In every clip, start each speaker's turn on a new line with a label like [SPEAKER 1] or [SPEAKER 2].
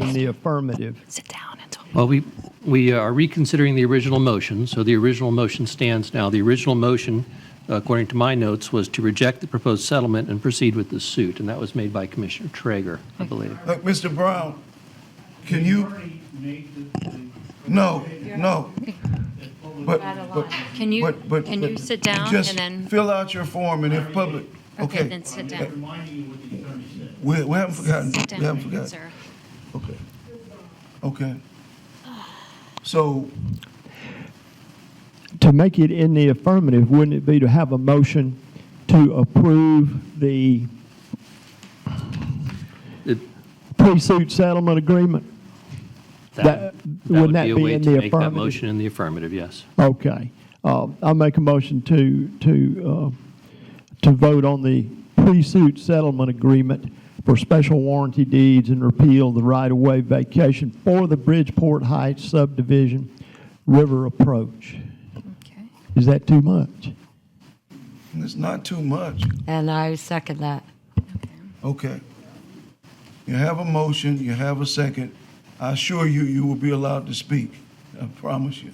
[SPEAKER 1] in the affirmative.
[SPEAKER 2] Sit down and talk.
[SPEAKER 3] Well, we, we are reconsidering the original motion, so the original motion stands now. The original motion, according to my notes, was to reject the proposed settlement and proceed with the suit, and that was made by Commissioner Traeger, I believe.
[SPEAKER 4] Look, Mr. Brown, can you,
[SPEAKER 5] already made the, the
[SPEAKER 4] no, no. But, but.
[SPEAKER 2] Can you-
[SPEAKER 4] but- but-
[SPEAKER 2] can you
[SPEAKER 4] but
[SPEAKER 2] sit down
[SPEAKER 4] just
[SPEAKER 2] and then-
[SPEAKER 4] Fill out your form and if public, okay.
[SPEAKER 2] Then sit down.
[SPEAKER 5] reminding you what the attorney said.
[SPEAKER 4] We, we haven't forgotten,
[SPEAKER 2] Sit
[SPEAKER 4] we haven't
[SPEAKER 2] down,
[SPEAKER 4] forgotten.
[SPEAKER 2] sir.
[SPEAKER 4] Okay. Okay. So,
[SPEAKER 1] To make it in the affirmative, wouldn't it be to have a motion to approve the
[SPEAKER 3] It-
[SPEAKER 1] pre-suit settlement agreement? That- wouldn't that be in
[SPEAKER 3] That would be a way
[SPEAKER 1] the
[SPEAKER 3] to make that
[SPEAKER 1] affirmative?
[SPEAKER 3] motion in the affirmative, yes.
[SPEAKER 1] Okay. Uh, I'll make a motion to, to, uh, to vote on the pre-suit settlement agreement for special warranty deeds and repeal the right-of-way vacation for the Bridgeport Heights subdivision river approach.
[SPEAKER 2] Okay.
[SPEAKER 1] Is that too much?
[SPEAKER 4] it's not too much.
[SPEAKER 6] And I second that.
[SPEAKER 4] Okay. You have a motion, you have a second. I assure you, you will be allowed to speak. I promise you.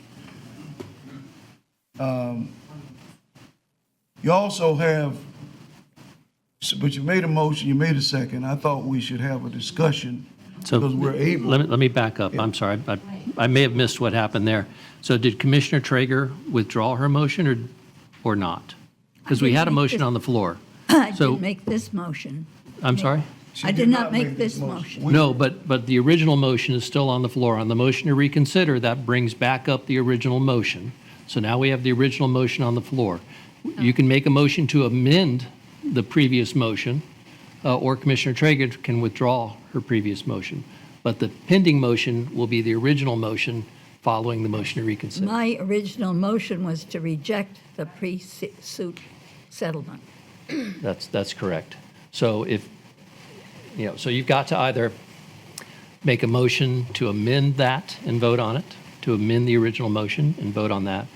[SPEAKER 4] Um, You also have, s- but you made a motion, you made a second. I thought we should have a discussion
[SPEAKER 3] So
[SPEAKER 4] because we're able.
[SPEAKER 3] Let me, let me back up. I'm sorry. I, I may have missed what happened there. So did Commissioner Traeger withdraw her motion or, or not? Because we had a motion on the floor.
[SPEAKER 7] I
[SPEAKER 3] So-
[SPEAKER 7] didn't make this motion.
[SPEAKER 3] I'm sorry?
[SPEAKER 4] She
[SPEAKER 7] I did not make this motion.
[SPEAKER 4] We-
[SPEAKER 3] No, but, but the original motion is still on the floor. On the motion to reconsider, that brings back up the original motion. So now we have the original motion on the floor. You can make a motion to amend the previous motion, uh, or Commissioner Traeger can withdraw her previous motion. But the pending motion will be the original motion following the motion to reconsider.
[SPEAKER 7] My original motion was to reject the pre-suit settlement.
[SPEAKER 3] That's, that's correct. So if, you know, so you've got to either make a motion to amend that and vote on it, to amend the original motion and vote on that,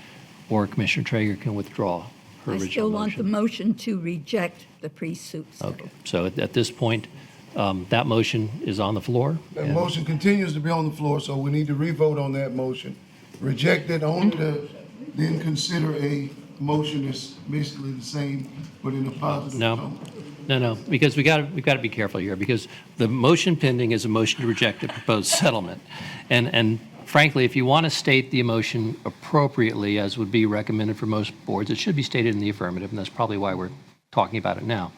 [SPEAKER 3] or Commissioner Traeger can withdraw her
[SPEAKER 7] I still
[SPEAKER 3] original
[SPEAKER 7] want the
[SPEAKER 3] motion.
[SPEAKER 7] motion to reject the pre-suit
[SPEAKER 3] Okay,
[SPEAKER 7] settlement.
[SPEAKER 3] so at, at this point, um, that motion is on the floor.
[SPEAKER 4] That
[SPEAKER 3] and-
[SPEAKER 4] motion continues to be on the floor, so we need to revote on that motion. Reject it only to then consider a motion that's basically the same, but in a positive
[SPEAKER 3] No,
[SPEAKER 4] tone.
[SPEAKER 3] no, no, because we got to, we've got to be careful here, because the motion pending is a motion to reject the proposed settlement. And, and frankly, if you want to state the emotion appropriately, as would be recommended for most boards, it should be stated in the affirmative, and that's probably why we're talking about it now.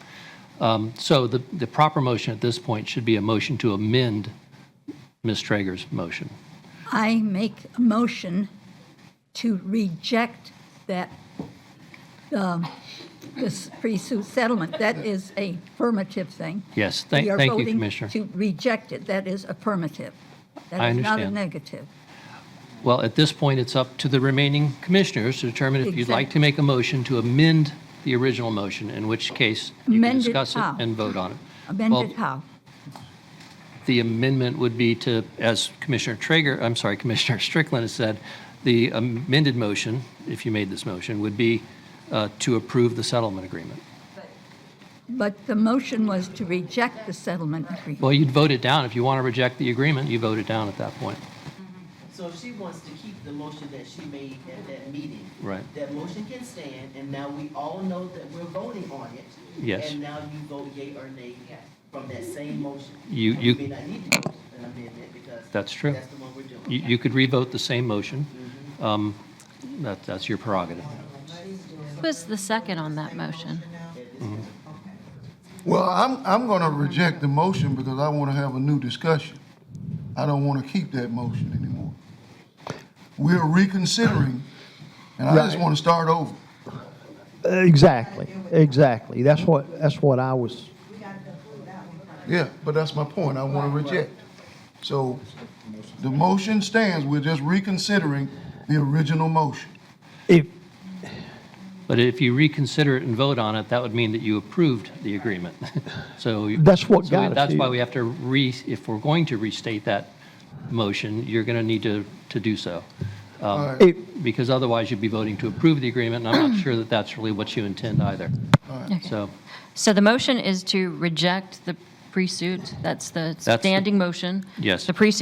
[SPEAKER 3] Um, So the, the proper motion at this point should be a motion to amend Ms. Traeger's motion.
[SPEAKER 7] I make a motion to reject that, um, this pre-suit settlement. That is a affirmative thing.
[SPEAKER 3] Yes, thank,
[SPEAKER 7] We are
[SPEAKER 3] thank you,
[SPEAKER 7] voting
[SPEAKER 3] Commissioner.
[SPEAKER 7] To reject it, that is affirmative.
[SPEAKER 3] I
[SPEAKER 7] That is not a
[SPEAKER 3] understand.
[SPEAKER 7] negative.
[SPEAKER 3] Well, at this point, it's up to the remaining commissioners to determine if you'd like to
[SPEAKER 7] Exactly.
[SPEAKER 3] make a motion to amend the original motion, in which case you can
[SPEAKER 7] Amend it
[SPEAKER 3] discuss it
[SPEAKER 7] how?
[SPEAKER 3] and vote on it.
[SPEAKER 7] Amended how?
[SPEAKER 3] The amendment would be to, as Commissioner Traeger, I'm sorry, Commissioner Strickland has said, the amended motion, if you made this motion, would be uh, to approve the settlement agreement.
[SPEAKER 7] But the motion was to reject the settlement agreement.
[SPEAKER 3] Well, you'd vote it down. If you want to reject the agreement, you vote it down at that point.
[SPEAKER 8] So if she wants to keep the motion that she made at that meeting.
[SPEAKER 3] Right.
[SPEAKER 8] That motion can stand, and now we all know that we're voting on it.
[SPEAKER 3] Yes.
[SPEAKER 8] And now you vote yea or nay from that same motion.
[SPEAKER 3] You-
[SPEAKER 8] And
[SPEAKER 3] you-
[SPEAKER 8] may not need to vote an amendment because.
[SPEAKER 3] That's true.
[SPEAKER 8] That's the one we're doing.
[SPEAKER 3] You you could revote the same motion. Um, that- That's your prerogative.
[SPEAKER 2] Who's the second on that motion?
[SPEAKER 4] Well, I'm, I'm gonna reject the motion because I wanna have a new discussion. I don't wanna keep that motion anymore. We're reconsidering, and I just
[SPEAKER 1] Right.
[SPEAKER 4] wanna start over.
[SPEAKER 1] Exactly, exactly. That's what, that's what I was,
[SPEAKER 4] Yeah, but that's my point, I wanna reject. So, the motion stands, we're just reconsidering the original motion.
[SPEAKER 1] if,
[SPEAKER 3] But if you reconsider it and vote on it, that would mean that you approved the agreement. So. you-
[SPEAKER 1] That's what
[SPEAKER 3] so
[SPEAKER 1] got us
[SPEAKER 3] That's why
[SPEAKER 1] here.
[SPEAKER 3] we have to re, if we're going to restate that motion, you're going to need to, to do so. Um,
[SPEAKER 1] if,
[SPEAKER 3] Because otherwise you'd be voting to approve the agreement, and I'm not sure that that's really what you intend either. So,
[SPEAKER 2] So the motion is to reject the pre-suit, that's the
[SPEAKER 3] the-
[SPEAKER 2] standing motion.
[SPEAKER 3] Yes.
[SPEAKER 2] The pre-suit